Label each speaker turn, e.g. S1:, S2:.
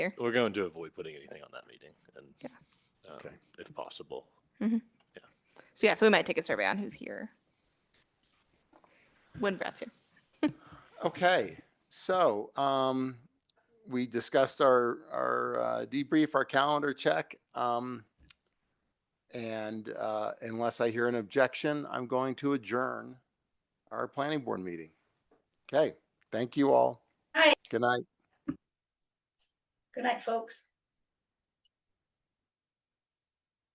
S1: Here.
S2: We're going to avoid putting anything on that meeting and um,
S3: Okay.
S2: if possible.
S1: So yeah, so we might take a survey on who's here. When Brett's here.
S3: Okay, so um, we discussed our our uh, debrief, our calendar check, um, and uh, unless I hear an objection, I'm going to adjourn our planning board meeting. Okay, thank you all.
S4: Hi.
S3: Good night.
S4: Good night, folks.